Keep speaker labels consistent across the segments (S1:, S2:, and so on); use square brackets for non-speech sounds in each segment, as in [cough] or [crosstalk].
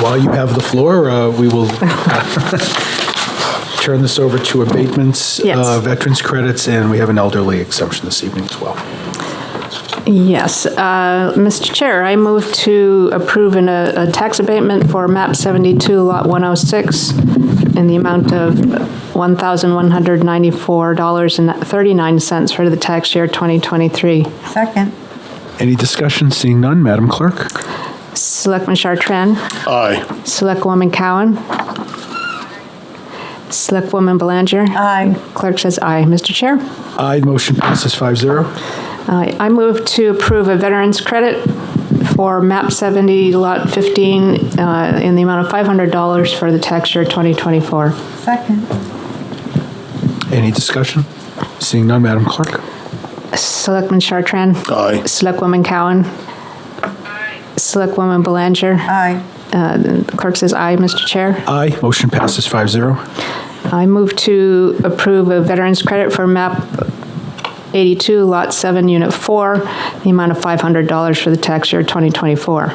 S1: While you have the floor, uh, we will uh, turn this over to abatements,
S2: Yes.
S1: uh, veterans credits, and we have an elderly exception this evening as well.
S2: Yes, uh, Mr. Chair, I move to approve an, uh, a tax abatement for MAP 72, Lot 106, in the amount of $1,194.39 for the tax year 2023.
S3: Second.
S1: Any discussion? Seeing none, Madam Clerk?
S2: Selectman Chartran?
S4: Aye.
S2: Selectwoman Cowan? Selectwoman Belanger?
S3: Aye.
S2: Clerk says aye. Mr. Chair?
S1: Aye, the motion passes 5-0.
S2: Uh, I move to approve a veteran's credit for MAP 70, Lot 15, uh, in the amount of $500 for the tax year 2024.
S3: Second.
S1: Any discussion? Seeing none, Madam Clerk?
S2: Selectman Chartran?
S4: Aye.
S2: Selectwoman Cowan? Selectwoman Belanger?
S3: Aye.
S2: Uh, the Clerk says aye, Mr. Chair.
S1: Aye, motion passes 5-0.
S2: I move to approve a veteran's credit for MAP 82, Lot 7, Unit 4, the amount of $500 for the tax year 2024.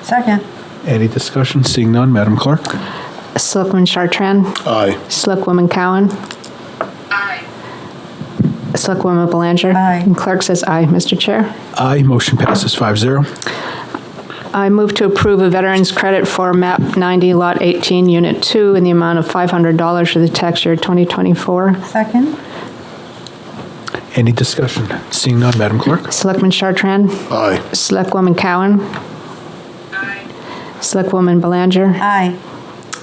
S3: Second.
S1: Any discussion? Seeing none, Madam Clerk?
S2: Selectman Chartran?
S4: Aye.
S2: Selectwoman Cowan? Aye. Selectwoman Belanger?
S3: Aye.
S2: And clerk says aye, Mr. Chair.
S1: Aye, motion passes 5-0.
S2: I move to approve a veteran's credit for MAP 90, Lot 18, Unit 2, in the amount of $500 for the tax year 2024.
S3: Second.
S1: Any discussion? Seeing none, Madam Clerk?
S2: Selectman Chartran?
S4: Aye.
S2: Selectwoman Cowan? Aye. Selectwoman Belanger?
S3: Aye.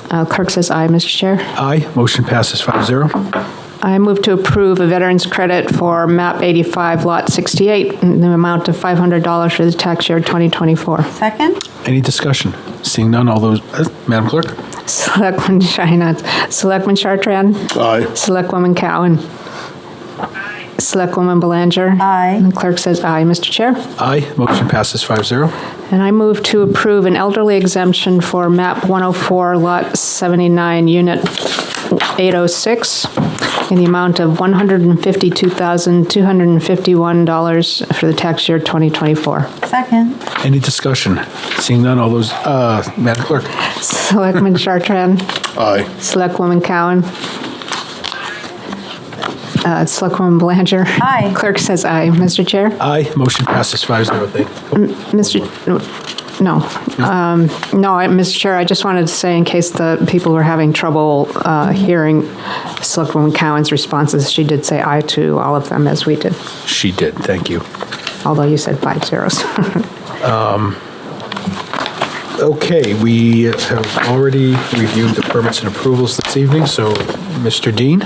S2: Uh, Clerk says aye, Mr. Chair.
S1: Aye, motion passes 5-0.
S2: I move to approve a veteran's credit for MAP 85, Lot 68, in the amount of $500 for the tax year 2024.
S3: Second.
S1: Any discussion? Seeing none, all those, uh, Madam Clerk?
S2: Selectman Sheinert, Selectman Chartran,
S4: Aye.
S2: Selectwoman Cowan, Selectwoman Belanger.
S3: Aye.
S2: And the clerk says aye, Mr. Chair.
S1: Aye, motion passes 5-0.
S2: And I move to approve an elderly exemption for MAP 104, Lot 79, Unit 806, in the amount of $152,251 for the tax year 2024.
S3: Second.
S1: Any discussion? Seeing none, all those, uh, Madam Clerk?
S2: Selectman Chartran,
S4: Aye.
S2: Selectwoman Cowan. Uh, Selectwoman Belanger.
S3: Aye.
S2: Clerk says aye. Mr. Chair?
S1: Aye, motion passes 5-0. Thank-
S2: Mr., no, Um, no, I- Mr. Chair, I just wanted to say, in case the people were having trouble uh, hearing Selectwoman Cowan's responses, she did say aye to all of them, as we did,
S1: Oh, She did, thank you.
S2: although you said five zeros. [laughs]
S1: Okay, we have already reviewed the permits and approvals this evening, so, Mr. Dean?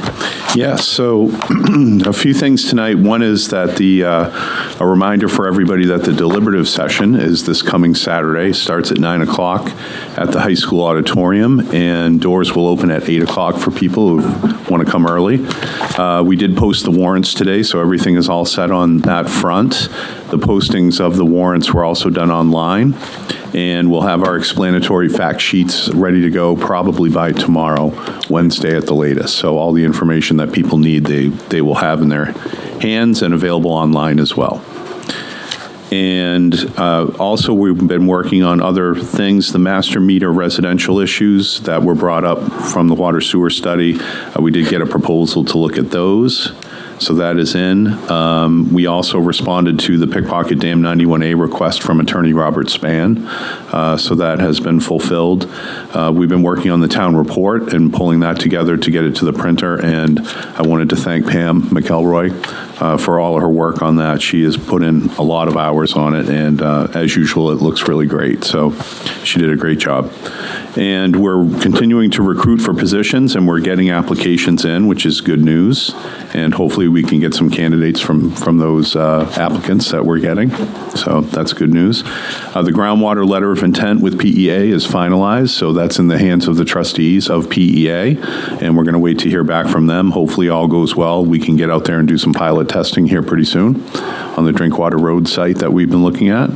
S5: Yeah, so [clears throat] a few things tonight. One is that the, uh, a reminder for everybody that the deliberative session is this coming Saturday, starts at 9 o'clock at the high school auditorium, and doors will open at 8 o'clock for people who want to come early. Uh, We did post the warrants today, so everything is all set on that front. The postings of the warrants were also done online, and we'll have our explanatory fact sheets ready to go probably by tomorrow, Wednesday at the latest. So all the information that people need, they, they will have in their hands and available online as well. And uh, also, we've been working on other things, the master meter residential issues that were brought up from the water sewer study. Uh, We did get a proposal to look at those, so that is in. Um, We also responded to the pickpocket dam 91A request from Attorney Robert Span, uh, so that has been fulfilled. Uh, We've been working on the town report and pulling that together to get it to the printer, and I wanted to thank Pam McElroy uh, for all of her work on that. She has put in a lot of hours on it, and uh, as usual, it looks really great. So she did a great job. And we're continuing to recruit for positions, and we're getting applications in, which is good news. And hopefully, we can get some candidates from from those uh, applicants that we're getting. So that's good news. Uh, the groundwater letter of intent with PEA is finalized, so that's in the hands of the trustees of PEA, and we're going to wait to hear back from them. Hopefully, all goes well. We can get out there and do some pilot testing here pretty soon on the Drinkwater Road site that we've been looking at.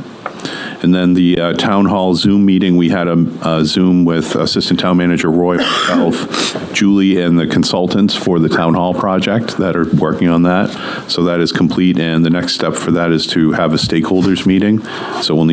S5: And then the uh, town hall Zoom meeting, we had a a Zoom with Assistant Town Manager Roy, myself, Julie, and the consultants for the town hall project that are working on that. So that is complete, and the next step for that is to have a stakeholders meeting. So we'll need